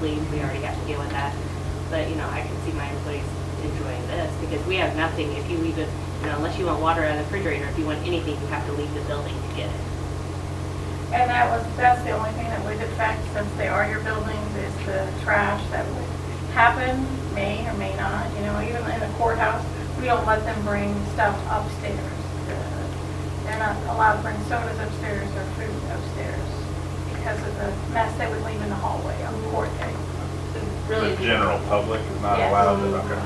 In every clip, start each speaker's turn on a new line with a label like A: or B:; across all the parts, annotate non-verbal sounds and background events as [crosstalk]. A: leave, we already have to deal with that. But, you know, I can see my employees enjoying this, because we have nothing, if you leave it, you know, unless you want water out of the refrigerator, if you want anything, you have to leave the building to get it.
B: And that was, that's the only thing that would affect, since they are your buildings, is the trash that would happen, may or may not, you know, even in the courthouse, we don't let them bring stuff upstairs. They're not allowed to bring sodas upstairs or food upstairs because of the mess they would leave in the hallway on court day. So
A: Really,
C: The general public is not
B: Yes.
C: allowed, to- okay,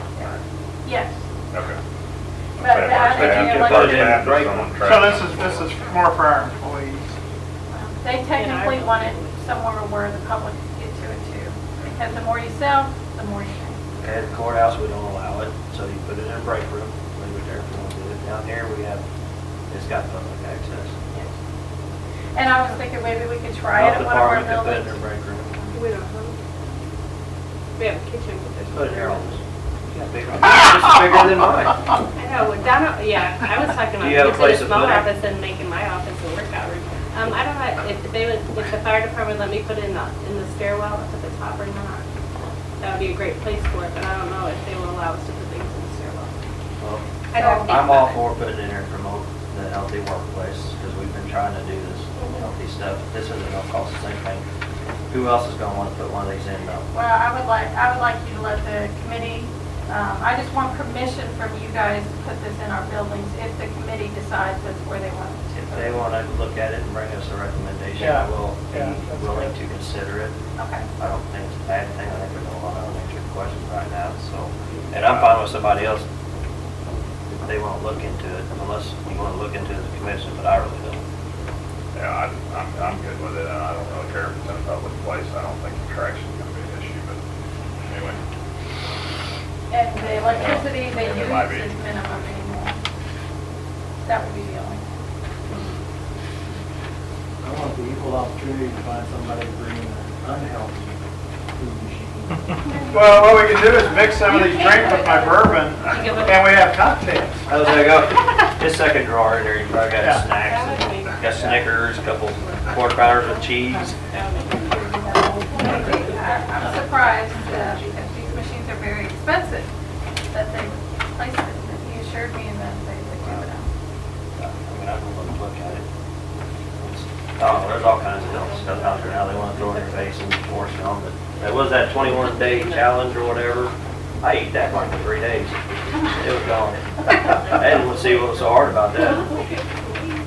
B: Yes,
C: okay.
B: but I think you know,
C: Our
B: like,
C: staff is on
D: So
C: track.
D: this is, this is more for our employees.
B: they technically want it somewhere where the public can get to it too. Because the more you sell, the more you pay.
E: At the courthouse, we don't allow it, so you put it in a break room, leave it there if you want to do it. Down here, we have, it's got public access.
B: And I was thinking maybe we could try it
E: Health
B: at one of our
E: department can put it in their
B: buildings.
E: break room.
F: We don't have, we have a kitchen.
E: It's put in their office. Yeah, big- It's bigger than mine.
A: I
D: [laughs]
A: know, well, down, at- yeah, I was
E: [laughs]
A: talking about
E: Do you have a
A: using
E: place
A: a
E: to
A: small
E: put it?
A: office and making my office a workout room. Um, I don't know if they would, if the fire department let me put it in the, in the stairwell up at the top or not. That would be a great place for it, but I don't know if they will allow us to put things in the stairwell.
E: Well,
A: I don't think
E: I'm
A: about
E: all
A: it.
E: for putting in there to promote the healthy workplace, because we've been trying to do this healthy stuff. This isn't gonna cost us anything. Who else is gonna wanna put one of these in though?
B: Well, I would like, I would like you to let the committee, um, I just want permission from you guys to put this in our buildings if the committee decides that's where they want it to.
E: If they wanna look at it and bring us a recommendation,
D: Yeah,
E: we'll
D: yeah, that's
E: be willing
D: good.
E: to consider it.
B: Okay.
E: I don't think it's a bad thing, I think there's a lot of unanswered questions right now, so, and I'm fine with somebody else, if they want to look into it, unless you want to look into it as a commission, but I really don't.
C: Yeah, I- I'm, I'm good with it, and I don't really care if it's in a public place, I don't think attraction's gonna be an issue, but anyway.
B: And the electricity they
C: And
B: use
C: it might be.
B: is minimum anymore. That would be the
C: [laughs]
B: only.
G: I want the equal opportunity to find somebody to bring an unhealthy food machine.
D: Well, what we can do is mix some of these drinks with my bourbon,
A: give it-
D: and we have cocktails.
E: Oh, there [laughs] you go. His second drawer in there, you probably
D: Yeah.
E: got snacks,
A: That would be-
E: and got Snickers, a couple quarter pounders with cheese.
A: that would be-
B: I- I'm surprised, uh, because these machines are very expensive, that they placed it. He assured me that they would do it.
E: I mean, I don't want to look at it. It's- Oh, there's all kinds of health stuff out there now, they want to throw in your face and force you on, but that was that twenty-one day challenge or whatever. I ate that like for three days. It was gone. I didn't see what was so hard about that.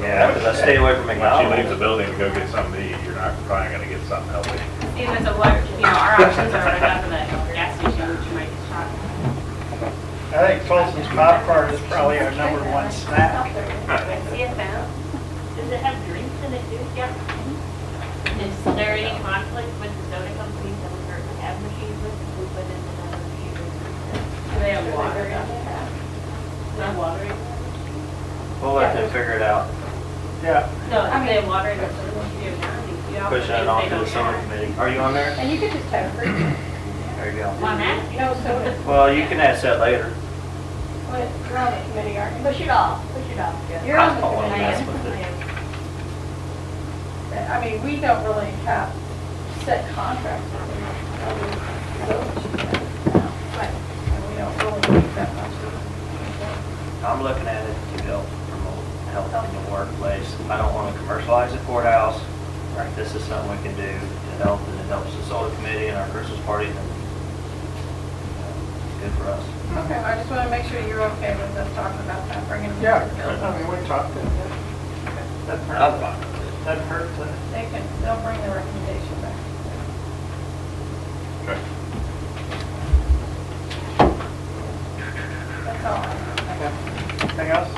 E: Yeah, because I stay away from
C: Once you leave the
E: McDonald's.
C: building to go get something to eat, you're not probably gonna get something healthy.
A: See, there's a large, you know, our options are right up at the gas station, which you might get shot.
D: I think Folsom's popcorn is probably our number one snack.
A: CFL, does it have drinks in it too? Yeah. Is there any conflict with the soda companies that we currently have machines with, if we put in another machine? Do they have water in that? No water in that?
E: We'll let them figure it out,
D: Yeah,
A: No, if they have water in the soda machine, you know.
E: pushing it on to the summer committee. Are you on there?
B: And you could just have fruit.
E: There you go.
A: On that?
B: No soda.
E: Well, you can ask that later.
B: What, you're on the committee, aren't you?
F: Push it off, push it off.
B: You're on
E: I
B: the
E: don't wanna
B: committee.
E: mess with it.
B: I mean, we don't really have set contracts. with them. Right. And we don't really need that much.
E: I'm looking at it to help promote health in the workplace. I don't want to commercialize the courthouse. Right, This is something we can do to help, and it helps the solar committee and our Christmas party, and uh, it's good for us.
B: Okay, I just want to make sure you're okay with us talking about that, bringing them.
D: yeah, I mean, we talked to them. Doesn't
E: I'm
D: hurt,
E: fine with it.
D: doesn't hurt uh, to.
B: They can, they'll bring the recommendation back.
C: Okay.
B: That's all. I have.
D: Anything else?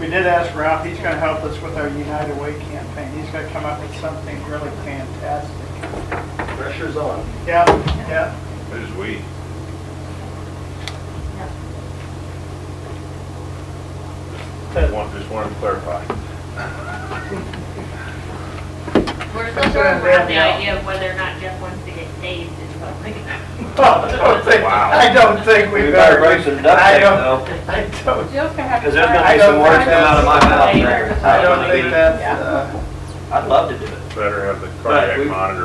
D: We did ask Ralph, he's gonna help us with our United Way campaign. He's gonna come up with something really fantastic.
E: Pressure's on.
D: Yeah, yeah.
C: Who's we? Just want, just wanted to clarify.
A: We're still
D: That's what
A: throwing
D: I'm
A: around the
D: down.
A: idea of whether or not Jeff wants to get saved in public.
D: [laughs] I don't think-
C: Wow.
D: I don't think we
E: We
D: better.
E: better break some duct
D: I
E: tape,
D: don't-
E: though,
D: I don't,
B: Jill's gonna have to.
E: because there's
B: sign-
E: going to be some words come out of my mouth.
A: Later.
E: there.
D: I don't think that's, uh.
E: I'd love to do it.
C: Better have the
E: But we-
C: cardiac monitor